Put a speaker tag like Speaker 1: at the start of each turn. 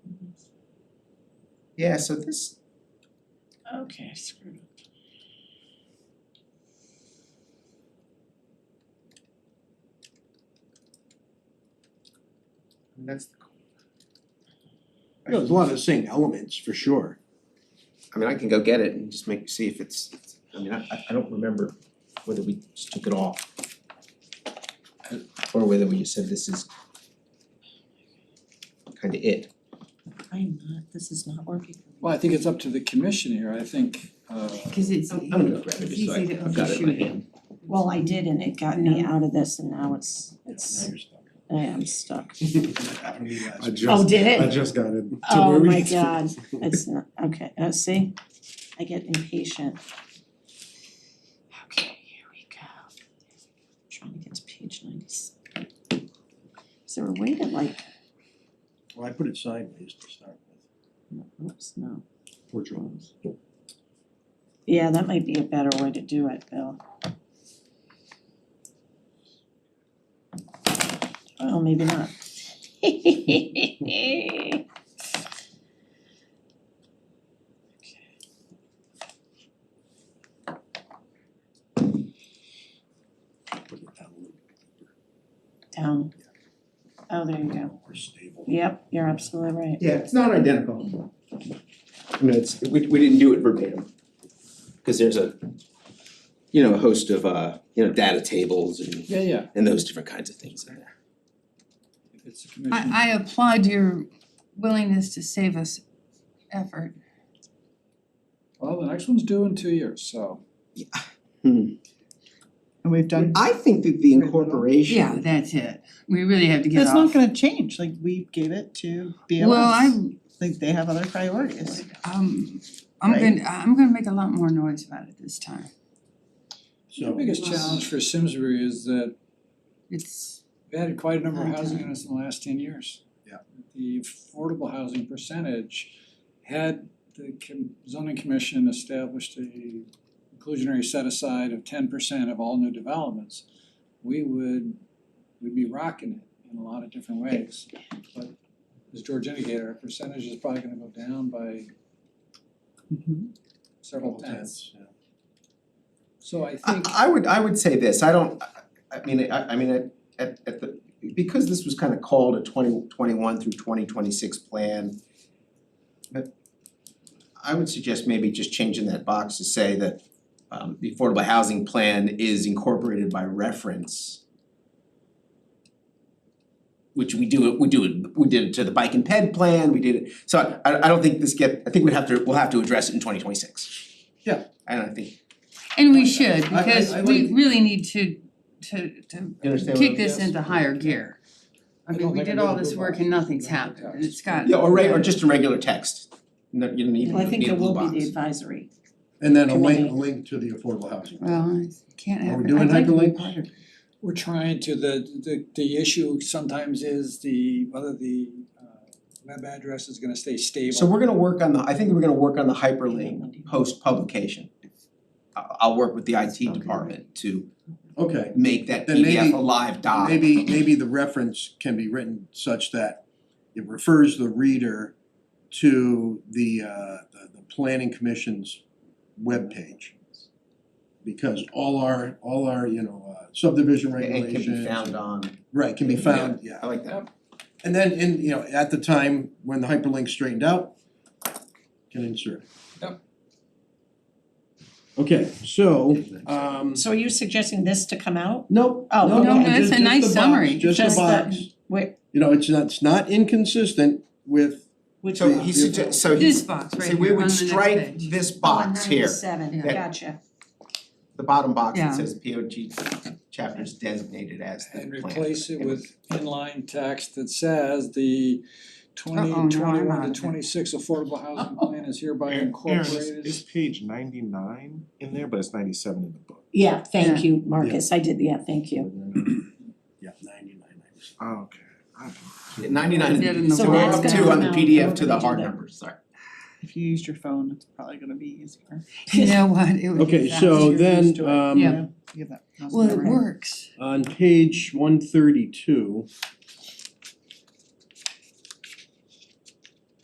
Speaker 1: Yeah, so this,
Speaker 2: Okay, screwed up.
Speaker 1: that's the.
Speaker 3: You know, there's a lot of the same elements for sure.
Speaker 4: I mean, I can go get it and just make, see if it's, I mean, I- I I don't remember whether we just took it off. Or whether we just said this is kinda it.
Speaker 2: I'm not, this is not working for me.
Speaker 5: Well, I think it's up to the commission here, I think, uh,
Speaker 6: Cause it's,
Speaker 4: I'm gonna go grab it
Speaker 6: It's
Speaker 4: just so I
Speaker 6: easy to
Speaker 4: have got it in my
Speaker 6: overshoot it.
Speaker 4: hand.
Speaker 6: well, I did and it got me out of this and now it's, it's, I am stuck.
Speaker 7: I
Speaker 6: Oh,
Speaker 7: just,
Speaker 6: did
Speaker 7: I
Speaker 6: it?
Speaker 7: just got it. Don't
Speaker 6: Oh
Speaker 7: worry.
Speaker 6: my god, it's not, okay, uh, see, I get impatient. Okay, here we go. Trying to get to page ninety-six. Is there a way to like,
Speaker 3: Well, I put it sideways to start with.
Speaker 6: no, oops, no,
Speaker 3: Poor drawings.
Speaker 6: yeah, that might be a better way to do it, Bill. Well, maybe not.
Speaker 3: Put it down a little bit
Speaker 6: Down. Oh, there you go.
Speaker 3: more stable.
Speaker 6: Yep, you're absolutely right.
Speaker 4: Yeah, it's not identical. I mean, it's, we we didn't do it verbatim. Cause there's a, you know, a host of uh, you know, data tables and
Speaker 5: yeah, yeah,
Speaker 4: and those different kinds of things in there.
Speaker 5: if it's the commission.
Speaker 8: I I applaud your willingness to save us effort.
Speaker 5: Well, the next one's due in two years, so.
Speaker 1: And we've done,
Speaker 4: I think that the incorporation.
Speaker 8: Yeah, that's it. We really have to get
Speaker 1: it's
Speaker 8: off.
Speaker 1: not gonna change, like we gave it to BLS.
Speaker 8: Well, I
Speaker 1: Like they have other priorities.
Speaker 8: um I'm
Speaker 1: Right.
Speaker 8: gonna I'm gonna make a lot more noise about it this time.
Speaker 5: The biggest challenge for Simsbury is that
Speaker 8: It's
Speaker 5: they had quite a number of housing
Speaker 8: Okay.
Speaker 5: units in the last ten years.
Speaker 3: Yeah.
Speaker 5: The affordable housing percentage had the com- zoning commission established a inclusionary set aside of ten percent of all new developments, we would, we'd be rocking it in a lot of different ways. But as George indicated, our percentage is probably gonna go down by
Speaker 4: Mm-hmm.
Speaker 5: several
Speaker 3: Tense,
Speaker 5: tenths.
Speaker 3: yeah.
Speaker 5: So I
Speaker 4: I
Speaker 5: think,
Speaker 4: I would I would say this, I don't, I I mean, I I mean, at at at the, because this was kind of called a twenty twenty one through twenty twenty six plan. But I would suggest maybe just changing that box to say that um the affordable housing plan is incorporated by reference. Which we do it, we do it, we did it to the bike and ped plan, we did it, so I I don't think this get, I think we'd have to, we'll have to address it in twenty twenty six.
Speaker 3: Yeah.
Speaker 4: I don't think
Speaker 8: and we should
Speaker 3: I- I-
Speaker 8: because
Speaker 3: I
Speaker 8: we
Speaker 3: like-
Speaker 8: really need to to to
Speaker 4: You understand what
Speaker 8: kick
Speaker 4: I'm-
Speaker 8: this
Speaker 5: Yes.
Speaker 8: into higher gear.
Speaker 5: I
Speaker 8: I mean,
Speaker 5: don't
Speaker 8: we
Speaker 5: think
Speaker 8: did
Speaker 5: I'm
Speaker 8: all
Speaker 5: gonna
Speaker 8: this
Speaker 5: move
Speaker 8: work
Speaker 5: on.
Speaker 8: and nothing's happened. and It's got
Speaker 4: Yeah, or reg- or just a regular text, no, you don't need,
Speaker 6: Well, I think
Speaker 4: need a
Speaker 6: there
Speaker 4: blue
Speaker 6: will be the
Speaker 4: box.
Speaker 6: advisory.
Speaker 3: And then a
Speaker 6: Committee.
Speaker 3: link, a link to the affordable housing.
Speaker 8: well, it can't
Speaker 3: Are we
Speaker 8: happen.
Speaker 3: doing
Speaker 8: I'd like to be
Speaker 3: hyperlinks?
Speaker 8: part of it.
Speaker 5: We're trying to, the the the issue sometimes is the whether the uh web address is gonna stay stable.
Speaker 4: So we're gonna work on the, I think we're gonna work on the hyperlink post publication. I I'll work with the IT department to
Speaker 3: Okay,
Speaker 4: make that
Speaker 3: Then maybe-
Speaker 4: PDF a live doc.
Speaker 3: maybe, maybe the reference can be written such that it refers the reader to the uh, the, the planning commission's webpage. Because all our, all our, you know, uh, subdivision
Speaker 4: And
Speaker 3: regulations.
Speaker 4: can be found on,
Speaker 3: Right, can be found, yeah.
Speaker 4: I like that.
Speaker 3: And then in, you know, at the time when the hyperlink straightened out, can insert it.
Speaker 5: Yep.
Speaker 3: Okay, so um
Speaker 6: So are you suggesting this to come out?
Speaker 3: no,
Speaker 6: Oh,
Speaker 3: no,
Speaker 6: okay.
Speaker 3: no,
Speaker 6: No, no,
Speaker 3: just-
Speaker 8: it's a
Speaker 3: just the
Speaker 8: nice
Speaker 3: box,
Speaker 8: summary.
Speaker 3: Just
Speaker 6: Just
Speaker 3: a
Speaker 6: the-
Speaker 3: box,
Speaker 6: Wait,
Speaker 3: you know, it's not, it's not inconsistent with,
Speaker 6: which
Speaker 4: So
Speaker 6: one?
Speaker 4: he suggests, so
Speaker 8: This
Speaker 4: he's,
Speaker 8: box right
Speaker 4: so
Speaker 8: here
Speaker 4: we
Speaker 8: on
Speaker 4: would
Speaker 8: the next
Speaker 4: strike
Speaker 8: page.
Speaker 4: this box here,
Speaker 6: Oh, Ninety-seven,
Speaker 8: Yeah.
Speaker 6: gotcha.
Speaker 4: the bottom box that
Speaker 8: Yeah.
Speaker 4: says P O G chapters designated as the plan.
Speaker 5: And replace it with inline text that says the twenty
Speaker 8: Uh-oh, no, I'm
Speaker 5: twenty
Speaker 8: out
Speaker 5: one
Speaker 8: of it.
Speaker 5: to twenty six affordable housing plan is hereby
Speaker 7: Aaron, Aaron, is-
Speaker 5: incorporated.
Speaker 7: is page ninety-nine in there, but it's ninety-seven in the book?
Speaker 6: Yeah, thank you, Marcus, I did, yeah, thank you.
Speaker 3: yeah, ninety-nine.
Speaker 7: Oh, okay. I don't know.
Speaker 4: Ninety
Speaker 8: Dead in
Speaker 4: nine,
Speaker 8: the
Speaker 4: so we're
Speaker 8: water.
Speaker 4: up
Speaker 8: That's
Speaker 4: to
Speaker 6: gonna
Speaker 4: on the
Speaker 6: come out.
Speaker 4: PDF to the
Speaker 6: We're gonna
Speaker 4: hard
Speaker 6: do that.
Speaker 4: numbers, sorry.
Speaker 1: If you used your phone, it's probably gonna be easier.
Speaker 8: You know what? It would be
Speaker 3: Okay, so
Speaker 8: faster.
Speaker 3: then
Speaker 1: to it.
Speaker 3: um
Speaker 8: Yeah.
Speaker 1: You have that. mouse
Speaker 8: Well, it
Speaker 1: over.
Speaker 8: works.
Speaker 3: on page one thirty-two,